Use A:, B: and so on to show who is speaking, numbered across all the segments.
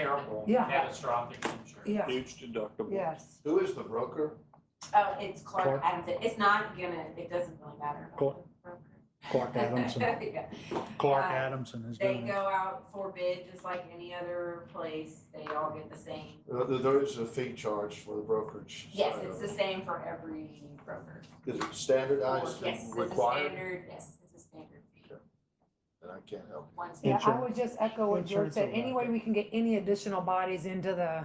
A: terrible,
B: Yeah.
A: catastrophic injury.
B: Yeah,
C: Huge deductible.
B: yes.
D: Who is the broker?
E: Oh, it's Clark
F: Clark.
E: Adamson. It's not gonna, it doesn't really matter. about
F: Clark.
E: the broker.
F: Clark Adamson,
E: Yeah.
F: Clark
E: Uh,
F: Adamson is
E: They
F: doing
E: go
F: it.
E: out for bid just like any other place. They all get the same.
D: Uh, th- There is a fee charge for the brokerage.
E: Yes,
D: side
E: it's
D: of
E: the
D: it.
E: same for every broker.
D: Is it standardized
E: Yes,
D: and
E: it's a
D: required?
E: standard, yes, it's a standard fee.
D: And I can't help.
E: Once
B: Yeah, I
F: Insurance-
B: would just echo what George
F: insurance
B: said,
F: will
B: any
F: wrap
B: way
F: it.
B: we can get any additional bodies into the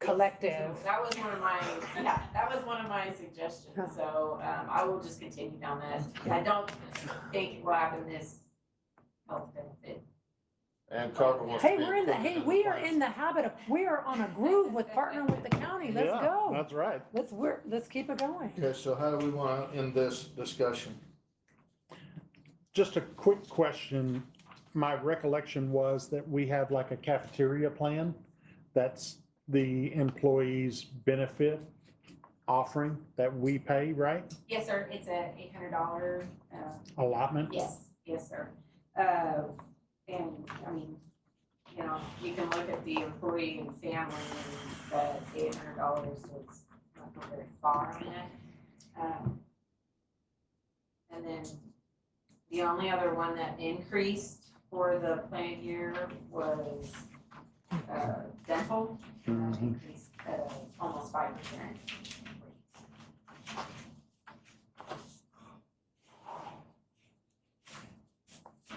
B: collective.
E: That was one of my, yeah, that was one of my suggestions, so, um, I will just continue down that. I don't think it will happen this health benefit.
D: And Carver wants to
B: Hey,
D: be
B: we're in the,
D: included
B: hey, we are
D: plan.
B: in the habit of, we are on a groove with partnering with the county, let's
F: Yeah,
B: go.
F: That's right.
B: Let's, we're, let's keep it going.
D: Okay, so how do we want to end this discussion?
F: Just a quick question. My recollection was that we have like a cafeteria plan. That's the employees' benefit offering that we pay, right?
E: Yes, sir, it's a eight hundred dollar, uh,
F: Allotment?
E: Yes, yes, sir. Uh, and, I mean, you know, you can look at the employee and family, but eight hundred dollars is not going very far on that. Um, And then the only other one that increased for the plan year was, uh, dental. and that
F: Mhm.
E: Increased, uh, almost five percent.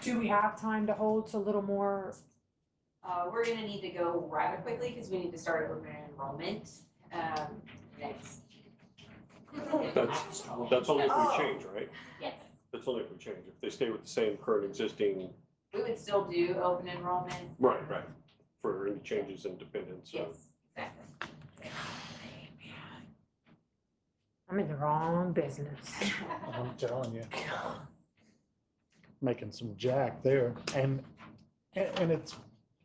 B: Do we have time to hold to a little more?
E: Uh, we're gonna need to go rather quickly because we need to start open enrollment, um,
G: That's-
E: next.
G: That's only if
E: Oh.
G: we change, right?
E: Yes,
G: That's only if we change. If they stay with the same current existing.
E: we would still do open enrollment,
G: Right, right. For any changes in dependents, so.
E: yes, exactly.
B: I'm in the wrong business.
F: I'm telling you. Making some jack there and, and and it's,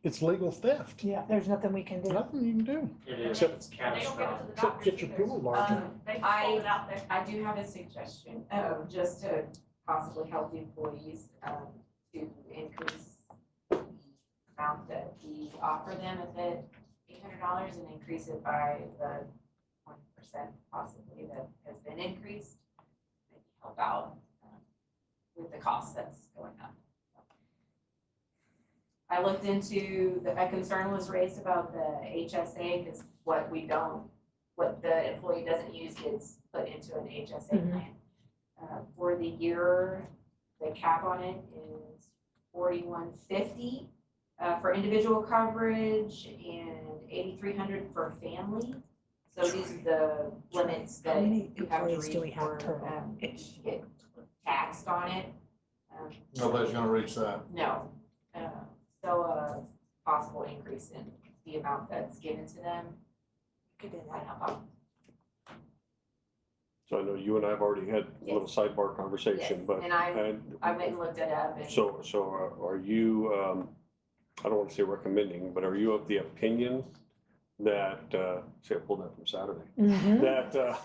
F: it's legal theft.
B: Yeah, there's nothing we can do.
F: Nothing you can do.
A: It is,
F: Except-
A: it's
E: And they don't give it to
A: catastrophic.
E: the
F: Except
E: doctors
F: get your
E: either.
F: pool larger.
E: Um, I, I do have a suggestion, um, just to possibly help the employees, um, to increase the amount that we offer them at the eight hundred dollars and increase it by the twenty percent possibly that has been increased. Maybe help out, um, with the cost that's going up. I looked into, the- a concern was raised about the HSA, because what we don't what the employee doesn't use gets put into an HSA
B: Mhm.
E: plan. Uh, for the year, the cap on it is forty-one fifty, uh, for individual coverage and eighty-three hundred for family. So these are the limits
B: How
E: that
B: many
E: you have to
B: employees do we
E: reach
B: have
E: for,
B: total?
E: um, if you get taxed on it. Um,
D: Nobody's going to reach that.
E: no, uh, so a possible increase in the amount that's given to them. Could do that.
G: So I know you and I have already had a little sidebar conversation,
E: Yes,
G: but.
E: and I,
G: and-
E: I went and looked it up and.
G: So, so are- are you, um, I don't want to say recommending, but are you of the opinion that, uh, see, I pulled that from Saturday.
E: Hmm?
B: Mhm.
G: That, uh,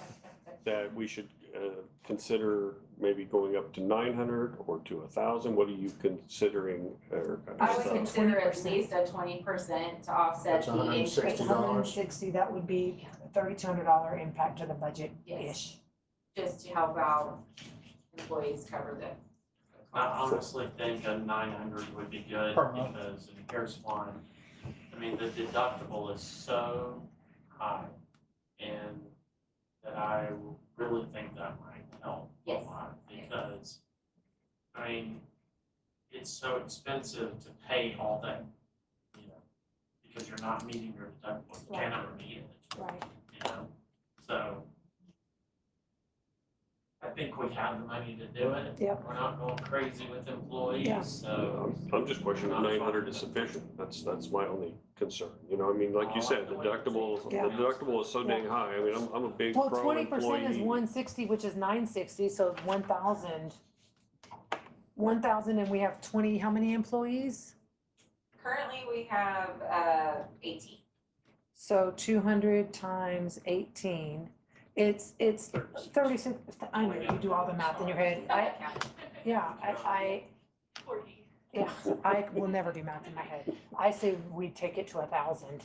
G: that we should, uh, consider maybe going up to nine hundred or to a thousand? What are you considering? or- uh,
E: I would
B: So
E: consider at
B: 20%.
E: least a twenty percent to offset
D: That's
E: the increase.
D: $160.
B: sixty, that would be thirty-two hundred dollar impact to the budget-ish.
E: Just to help out employees cover the. the
A: I
E: cost.
A: honestly think a nine hundred would be good
F: Per month.
A: because, and here's why. I mean, the deductible is so high and that I really think that might help a
E: Yes.
A: lot because, I mean, it's so expensive to pay all that, you know, because you're not meeting your deductible, you can't ever meet it.
B: Right.
A: you know, so. I think we have the money to do it.
B: Yep.
A: We're not going crazy with
B: Yeah.
A: employees, so.
G: uh, I'm just questioning nine hundred is sufficient, that's, that's my only concern, you know, Oh, I mean, like you said, deductible, the
B: Yeah.
G: deductible is so dang high, I mean, I'm, I'm a big pro
B: Well, twenty
G: employee.
B: percent is one sixty, which is nine sixty, so one thousand. One thousand and we have twenty, how many employees?
E: Currently, we have, uh, eighteen.
B: So two hundred times eighteen, it's, it's thirty-six, I know, you do all the math in your head, I, yeah, I, I,
E: Forty.
B: Yeah, I will never do math in my head. I say we take it to a thousand.